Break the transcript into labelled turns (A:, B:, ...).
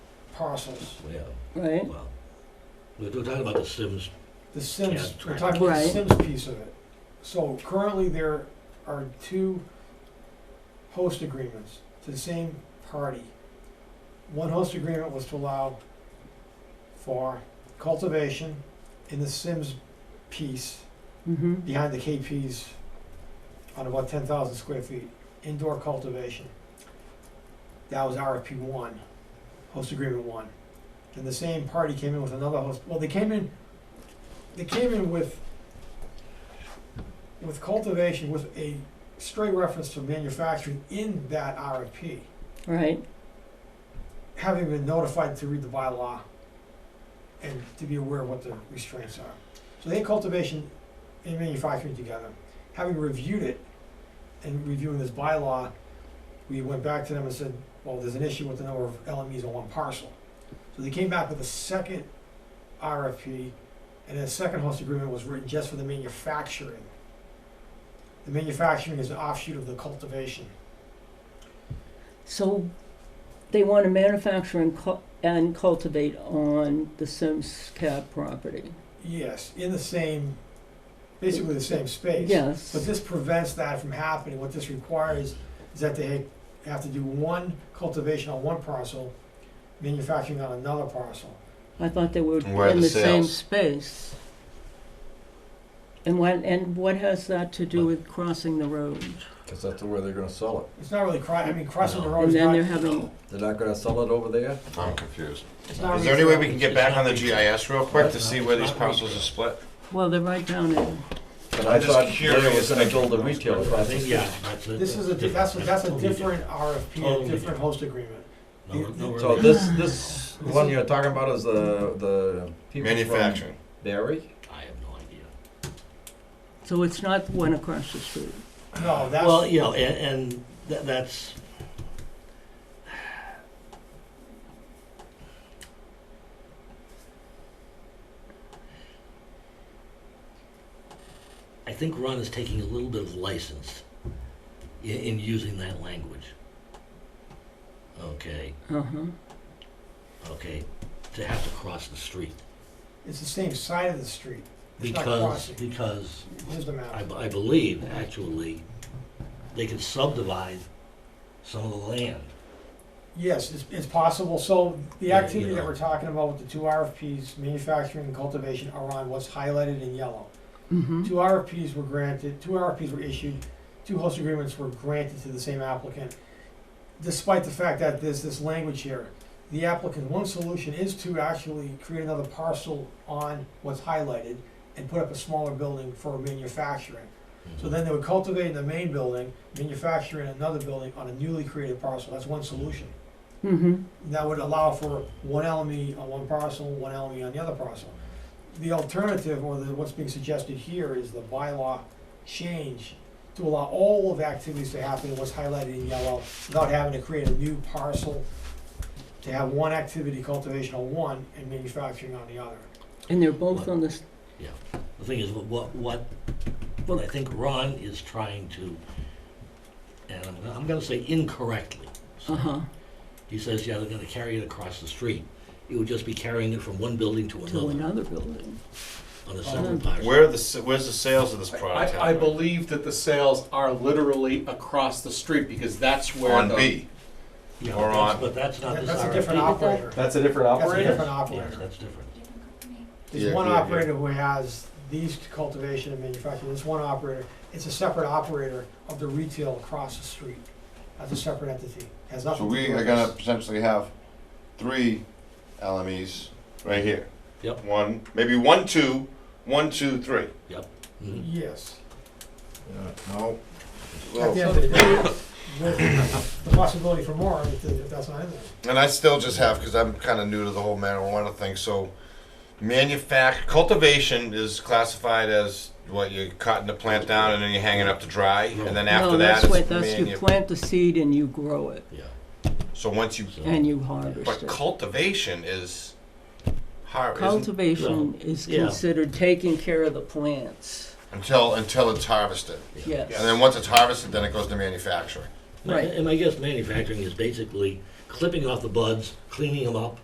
A: parcels.
B: yeah,
C: right?
B: well, we're we're talking about the Sims,
A: The Sims,
B: Yeah,
A: we're
B: right.
A: talking about the
C: Right.
A: Sims piece of it. So currently, there are two host agreements to the same party. One host agreement was to allow for cultivation in the Sims piece
C: Mm-hmm.
A: behind the KPs on about ten thousand square feet, indoor cultivation. That was RFP one, host agreement one. And the same party came in with another host, well, they came in, they came in with, with cultivation, with a straight reference to manufacturing in that RFP,
C: Right.
A: having been notified to read the bylaw and to be aware of what the restraints are. So they had cultivation and manufacturing together. Having reviewed it and reviewing this bylaw, we went back to them and said, well, there's an issue with the number of LMEs on one parcel. So they came back with a second RFP, and a second host agreement was written just for the manufacturing. The manufacturing is an offshoot of the cultivation.
C: So they want to manufacture and, cu- and cultivate on the Sims Cat property.
A: Yes, in the same, basically the same space.
C: Yes.
A: But this prevents that from happening. What this requires is that they have to do one cultivation on one parcel, manufacturing on another parcel.
C: I thought they were
D: And where are
C: in
D: the
C: the same
D: sales?
C: space. And what, and what has that to do with crossing the road?
D: Because that's where they're gonna sell it.
A: It's not really cri- I mean, crossing the
B: No.
A: road
C: And
A: is
C: then they're
A: Oh, not,
C: having,
D: They're not gonna sell it over there?
E: I'm confused.
A: it's not.
D: Is there any way we can get
B: It's
D: back on
B: not
D: the
B: retail.
D: GIS real quick to
B: It's
D: see
B: not-
D: where
B: it's
D: these
B: not
D: parcels are
B: retail.
D: split?
C: well, they're right down in,
D: But
E: I'm just
D: Larry
E: curious.
D: was gonna build a retail
B: I
D: across the
B: think,
D: street.
B: yeah, that's a.
A: This is a, di- that's, a- that's a
B: totally
A: different RFP,
B: Totally
A: a different host agreement.
B: No, we're- no, we're-
F: So this, this one you're talking about is the, the people from
D: Manufacturing.
F: Barry?
B: I have no idea.
C: so it's not the one across the street.
A: No,
B: Well,
A: that's,
B: you know, and, and tha- that's. I think Ron is taking a little bit of license i- in using that language. Okay,
C: Uh-huh.
B: okay, to have to cross the street.
A: it's the same side of the street. It's not
B: Because,
A: crossing.
B: because
A: Here's the
B: I,
A: map.
B: I believe, actually, they can subdivide some of the land.
A: Yes, it's, it's possible. So the
B: Yeah,
A: activity
B: you
A: that
B: know.
A: we're talking about with the two RFPs, manufacturing and cultivation, are on what's highlighted in yellow.
C: Mm-hmm.
A: Two RFPs were granted, two RFPs were issued, two host agreements were granted to the same applicant. Despite the fact that there's this language here, the applicant, one solution is to actually create another parcel on what's highlighted and put up a smaller building for manufacturing. So
B: Mhm.
A: then they would cultivate in the main building, manufacture in another building on a newly created parcel, that's one solution.
C: Mm-hmm.
A: That would allow for one LME on one parcel, one LME on the other parcel. The alternative, or the, what's being suggested here, is the bylaw change to allow all of the activities to happen, what's highlighted in yellow, without having to create a new parcel, to have one activity, cultivation on one, and manufacturing on the other.
C: And they're both on this,
B: The thing is, what- what, what, what I think Ron is trying to, and I'm, gonna- I'm gonna say incorrectly. so-
C: uh-huh,
B: He says, yeah, they're gonna carry it across the street. It would just be carrying it from one building to
C: to
B: another
C: another building.
B: on a separate
C: Mhm.
B: parcel.
D: Where are the, s- where's the sales of this product
G: I, I
D: happening?
G: believe that the sales are literally across the street because that's where
D: On
G: the,
D: B.
B: Yeah,
D: Or
B: that's-
D: on-
B: But that's not
A: That-
B: this
A: That's a
B: RFP.
A: different operator.
F: That's a different
A: That's a
F: operator?
A: different
B: Yes,
A: operator.
B: that's different.
A: There's
D: Yeah,
A: one
D: yeah, yeah.
A: operator who has these cultivation and manufacturing, there's one operator, it's a separate operator of the retail across the street. That's a separate entity, has
E: So
A: nothing to
E: we
A: do
E: are
A: with
E: gonna
A: this.
E: potentially have three LMEs right here.
B: Yep.
E: One, maybe one, two, one, two, three.
C: Mm-hmm.
B: Mhm.
A: Yes.
D: No.
A: At the end of the day, with the possibility for more if the- if that's not in there.
E: And I still just have, because I'm kind of new to the whole marijuana thing, so manufact, cultivation is classified as what, you're cutting the plant down and then you're hanging up to dry, and then after
C: No,
E: that
C: that's
E: it's
C: what, that's, you
E: manu-
C: plant the seed and you grow it,
B: Yeah.
E: So once you,
B: so-
C: and you harvest
E: but
C: it.
E: cultivation is har- isn't,
C: Cultivation is
B: yeah.
C: considered taking care of the plants,
E: until, until it's harvested. And
C: yes,
E: then once it's harvested, then it goes to manufacturing.
C: Right.
B: And I guess manufacturing is basically clipping off the buds, cleaning them up,